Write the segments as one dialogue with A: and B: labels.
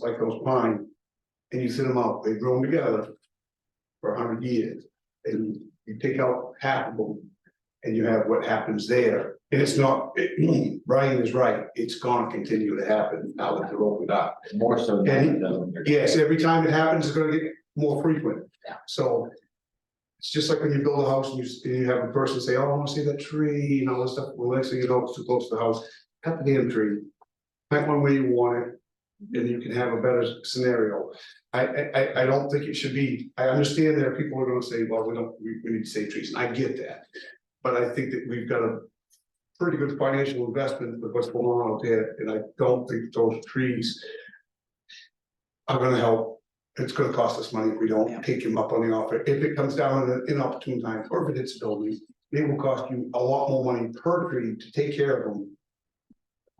A: like those pines. And you sit them out, they've grown together. For a hundred years, and you take out half of them. And you have what happens there, and it's not, it- Brian is right, it's gonna continue to happen now that they're opened up.
B: more so than the.
A: Yes, every time it happens, it's gonna get more frequent.
C: Yeah.
A: So. It's just like when you build a house and you, s- and you have a person say, oh, I wanna see that tree and all this stuff, well, next thing you know, it's too close to the house, cut the damn tree. Plant one where you want it, and you can have a better scenario. I, I, I, I don't think it should be, I understand that people are gonna say, well, we don't, we, we need to save trees, and I get that. But I think that we've got a pretty good financial investment with what's going on out there, and I don't think those trees are gonna help. It's gonna cost us money if we
C: Yeah.
A: don't take him up on the offer. If it comes down at an inopportune time, or if it hits buildings, it will cost you a lot more money per tree to take care of them.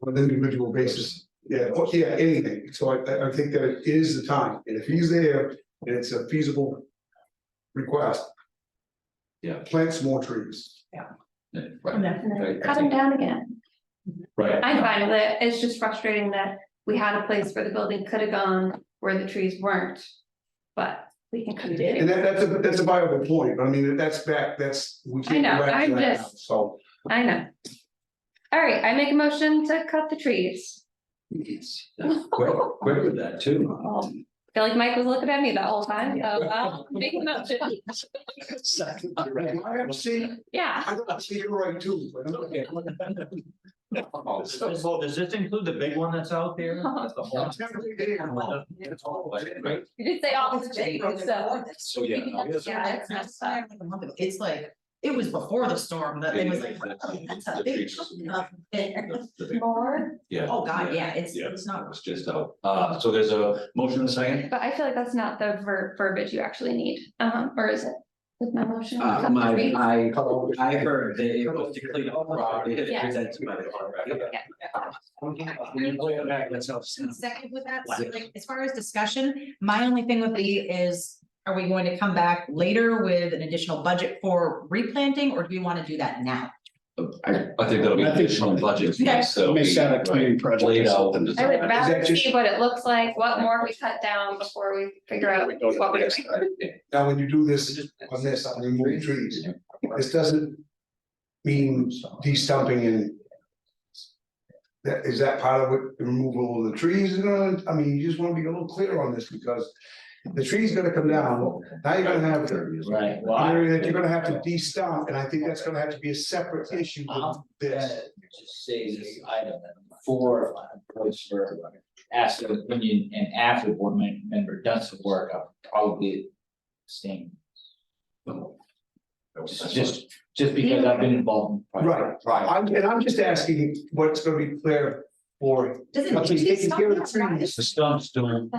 A: On an individual basis, yeah, oh, yeah, anything. So I, I, I think that it is the time, and if he's there and it's a feasible request.
B: Yeah.
A: Plant some more trees.
B: Right,
D: Definitely,
B: Right, I
D: cut them
B: think-
D: down again.
B: right.
D: I'm fine with it. It's just frustrating that we had a place where the building could have gone where the trees weren't. But we can cut
C: We
D: it.
C: did.
A: And that, that's a, that's a viable point, but I mean, that's back, that's. we can't go
D: know,
A: back to
D: I'm
A: that
D: just-
A: now, So.
D: I know. All right, I make a motion to cut the trees.
B: Yes, that's Quick, quick with that too.
D: Well, I Feel like Mike was looking at me the whole time, so I'll make a motion.
A: I have seen,
D: Yeah,
A: I don't see you're right too, but I'm okay.
B: Does this-
E: So does this include the big one that's out there?
F: Uh-huh.
E: The
D: Oh.
E: whole-
B: It's all like, right?
D: you did say all this big, so.
B: So, yeah. no, yes.
C: Yeah, it's not, it's not even a month ago. It's like, it was before the storm that it was like, oh, that's a big chunk of it.
B: The big-
D: More,
B: Yeah.
C: Oh, God, yeah, it's,
B: Yeah.
C: it's not.
B: It's just out. Uh, so there's a motion and a second.
D: but I feel like that's not the ver- verbiage you actually need, um, or is it? With my motion.
F: Uh,
D: cut the
F: my,
D: trees?
F: I, I heard that it was to clean up property
D: Yeah.
F: presented by the contractor.
C: Second with that, so like, as far as discussion, my only thing would be is, are we going to come back later with an additional budget for replanting, or do we want to do that now?
B: I, I think that'll be
G: I think-
B: additional budget.
C: Yeah.
B: So.
G: Miss out a cleaning project.
B: Laid out.
D: I would rather
A: that just-
D: see what it looks like, what more we cut down before we figure out what we're doing.
A: Now, when you do this, on this, on removing trees, this doesn't mean de-stumping and. That, is that part of what the removal of the trees, is gonna I mean, you just wanna be a little clear on this, because the tree's gonna come down, now you're gonna have. an
B: Right.
A: Area that you're gonna have to de-stump, and I think that's gonna have to be a separate issue with this.
H: Just say this item, four, votes for, ask the opinion, and after the board mem- member does the work, I'll probably abstain. Just, just because I've been involved. in project.
A: Right, I'm, and I'm just asking what's gonna be clear for
C: Does it
A: But
C: need to
A: they
C: be
A: can hear the
C: stopped now? Why
A: trees.
C: is-
B: The stumps don't,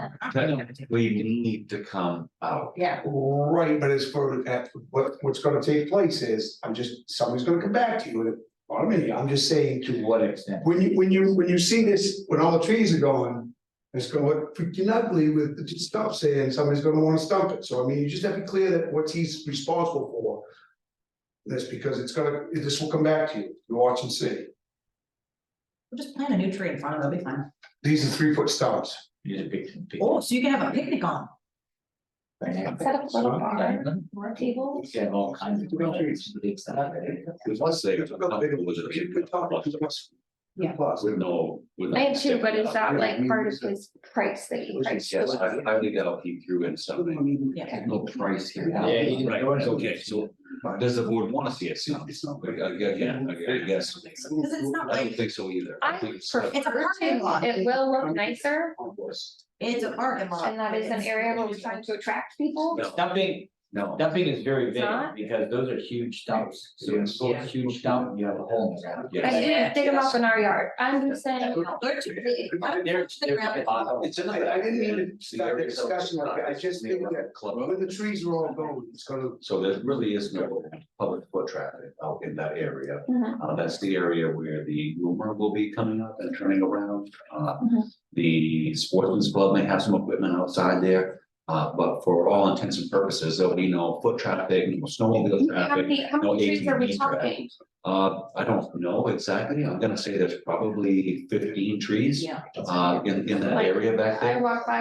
B: we need to come out.
C: Yeah,
A: Right, but as for that, what what's gonna take place is, I'm just, somebody's gonna come back to you with it. I mean, I'm just saying,
H: To what extent?
A: when you, when you, when you see this, when all the trees are gone. It's gonna look freaking ugly with the stump saying somebody's gonna wanna stump it, so I mean, you just have to be clear that what he's responsible for. That's because it's gonna, this will come back to you, you watch and see,
C: we'll just plant a new tree in front of it, it'll be fine.
A: these are three foot stumps.
H: You just pick- pick-
C: Oh, so you can have a picnic on.
D: Set up a little bar or a table.
H: You can have all kinds of.
B: Let's say. it's
A: It's
B: a
A: not big,
B: couple with a
A: it's
B: big-
A: good topic, it's must-
C: Yeah.
A: Plus.
B: With no. with no-
D: I am too, but is that like part of his price that he priced?
B: Yes, I, I think that'll keep through in something.
C: Yeah.
B: No price here. now.
H: Yeah, he didn't-
B: Right, okay, so does the board want to see it soon?
A: It's not.
B: Again, I guess.
C: Because it's not
B: I don't
C: like,
B: think so either.
D: I
B: think it's-
D: prefer
C: It's a parking
D: to,
C: lot.
D: it will look nicer,
C: it's a parking lot.
D: and that is an area where we're trying to attract people.
B: No.
H: Dumping,
B: No.
H: dumping is very big,
D: Not?
H: because those are huge dumps, so when you pull a huge dump, you have a hole in the ground.
D: I
B: Yes.
D: didn't dig them up in our yard, I'm just saying.
C: They're too big. I'm
H: There's-
C: pushing
H: there's
C: around.
H: a lot of-
A: It's a- I- I didn't mean to start the discussion like that. I just think that- When the trees are all gone, it's gonna,
B: So there really is no public foot traffic out in that area.
D: Mhm.
B: Uh, that's the area where the rumor will be coming up and turning around. Uh,
D: Mhm.
B: the sportsman's club may have some equipment outside there. Uh, but for all intents and purposes, there'll be no foot traffic, no snowmobile
D: How
B: traffic.
D: many, how
B: no
D: many trees are we
B: ATV traffic.
D: talking?
B: Uh, I don't know exactly, I'm gonna say there's probably fifteen trees.
C: Yeah.
B: Uh, in, in that area back there.
D: I walk by